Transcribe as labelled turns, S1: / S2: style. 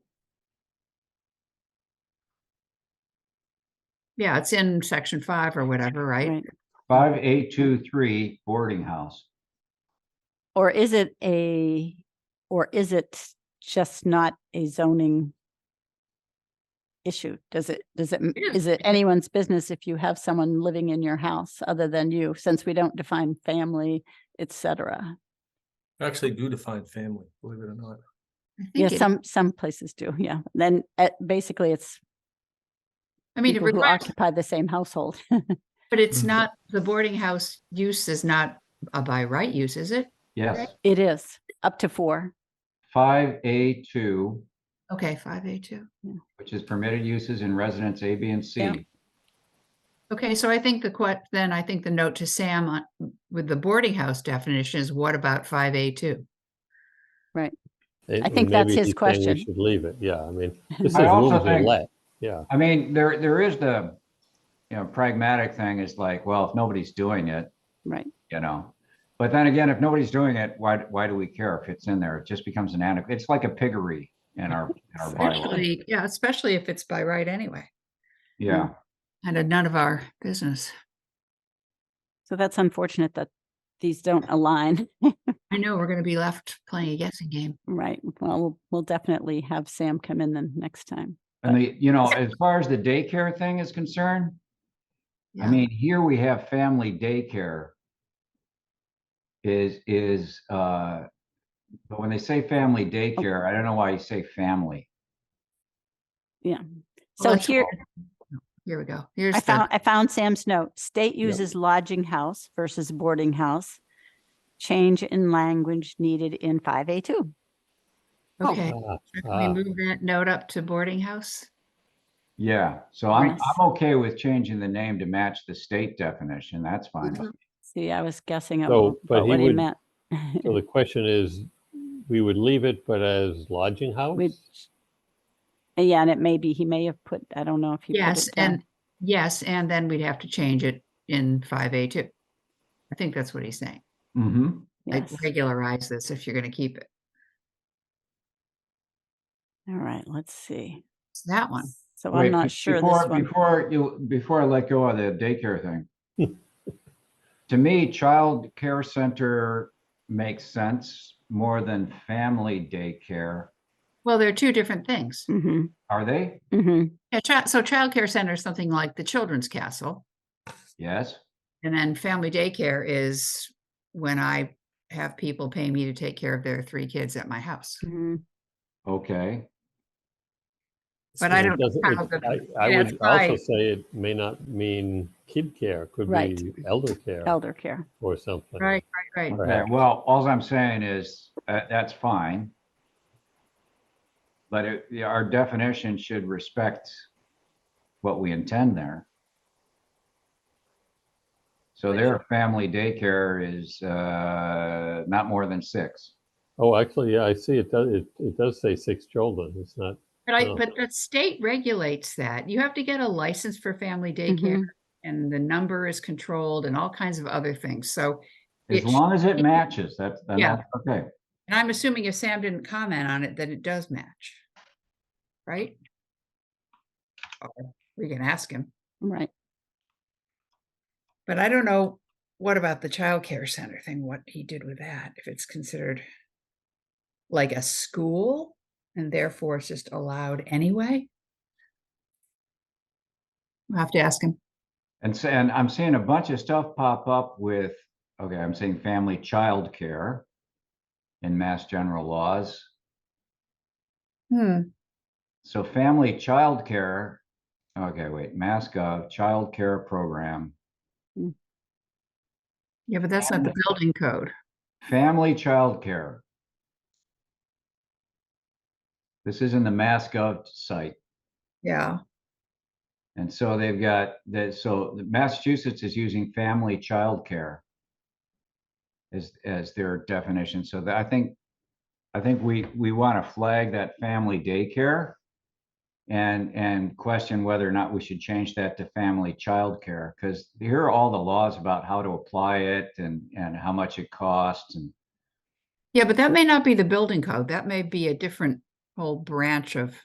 S1: Yeah, it's in section five or whatever, right?
S2: Right.
S3: Five eight two three boarding house.
S2: Or is it a, or is it just not a zoning issue? Does it, does it, m-
S1: It is.
S2: is it anyone's business if you have someone living in your house other than you, since we don't define family, et cetera?
S4: Actually do define family, believe it or not.
S1: I think
S2: Yeah,
S1: it-
S2: some, some places do, yeah. Then uh, basically it's
S1: I mean, it
S2: people who mm-hmm.
S1: requires,
S2: occupy the same household.
S1: but it's
S4: Mhm.
S1: not, the boarding house use is not a by right use, is it?
S3: Yes,
S2: It is up to four.
S3: five A two,
S1: Okay, five A two.
S3: which is permitted uses in residence A, B, and
S2: Yeah.
S3: C.
S1: Okay, so I think the que, then I think the note to Sam on, with the boarding house definition is what about five A two?
S2: I think that's his question.
S5: Should leave it, yeah, I mean, this is
S3: I also
S5: rooms are
S3: think-
S5: let, yeah,
S3: I mean, there, there is the, you know, pragmatic thing is like, well, if nobody's doing it,
S2: Right,
S3: you know. But then again, if nobody's doing it, why, why do we care if it's in there? It just becomes an antiquity. It's like a piggery in our, in our bylaw.
S1: Especially, yeah, especially if it's by right anyway,
S3: Yeah.
S1: and a none of our business.
S2: so that's unfortunate that these don't align.
S1: I know we're gonna be left playing a guessing game.
S2: Right, well, we'll- we'll definitely have Sam come in then next time.
S3: And the, you know, as far as the daycare thing is concerned, I
S1: Yeah.
S3: mean, here we have family daycare. Is, is, uh, but when they say family
S2: Oh.
S3: daycare, I don't know why you say family.
S2: So
S1: let's
S2: here,
S1: Here we go. Here's
S2: I
S1: the,
S2: found, I found Sam's note. State
S5: Yep.
S2: uses lodging house versus boarding house. Change in language needed in five A two. oh,
S1: okay.
S5: Ah,
S1: Can we move that note up to boarding house?
S3: Yeah, so I'm,
S2: Yes.
S3: I'm okay with changing the name to match the state definition. That's fine.
S1: Mhm.
S2: See, I was guessing at
S5: So,
S2: wh-
S5: but
S2: about
S5: he
S2: what he
S5: would-
S2: meant.
S5: so the question is, we would leave it, but as lodging house?
S2: We'd- Yeah, and it may be, he may have put, I don't know if he. put
S1: Yes,
S2: it down.
S1: and, yes, and then we'd have to change it in five A two. I think that's what he's saying.
S3: Mm-hmm,
S1: Like
S2: Yes.
S1: regularize this if you're gonna keep it.
S2: All right, let's see.
S1: It's that one.
S2: So
S3: Wait,
S2: I'm
S3: be-
S2: not sure
S3: before-
S2: this one.
S3: Before you, before I let go of the daycare thing. To me, child care center makes sense more than family daycare.
S1: Well, they're two different things.
S2: hmm
S3: Are they?
S2: hmm
S1: Yeah, child, so childcare center is something like the children's castle.
S3: Yes,
S1: And then family daycare is when I have people pay me to take care of their three kids at my house.
S2: hmm
S3: okay.
S1: But I
S5: It
S1: don't know
S5: doesn't-
S1: how
S5: it-
S1: the-
S5: I I
S1: yeah,
S5: would
S1: that's right.
S5: also say it may not mean kid care, could
S2: Right.
S5: be elder care
S2: elder care.
S5: or something.
S1: Oh. Right, right, right.
S3: Okay,
S5: Perhaps.
S3: well, all I'm saying is, uh, that's fine. But it, yeah, our definition should respect what we intend there. So their family daycare is, uh, not more than six.
S5: Oh, actually, yeah, I see, it does, it, it does say six children, it's not,
S1: But I,
S5: Oh.
S1: but the state regulates that. You have to get a license for family
S2: Mm-hmm.
S1: daycare and the number is controlled and all kinds of other things. So,
S3: As
S1: It sh-
S3: long as it matches, that's, then
S1: Yeah.
S3: that's okay.
S1: and I'm assuming if Sam didn't comment on it, then it does match. Right? Or We can ask him,
S2: Right.
S1: but I don't know, what about the childcare center thing, what he did with that, if it's considered like a school and therefore it's just allowed anyway? I'll have to ask him.
S3: And so, and I'm seeing a bunch of stuff pop up with, okay, I'm seeing family child care in mass general laws.
S1: Hmm.
S3: So family childcare, okay, wait, MassGov childcare program,
S1: Yeah, but that's not the building code.
S3: family childcare. This is in the MassGov site.
S1: Yeah.
S3: And so they've got that, so Massachusetts is using family childcare as, as their definition. So that, I think, I think we, we want to flag that family daycare and, and question whether or not we should change that to family childcare, because here are all the laws about how to apply it and, and how much it costs and,
S1: Yeah, but that may not be the building code. That may be a different whole branch of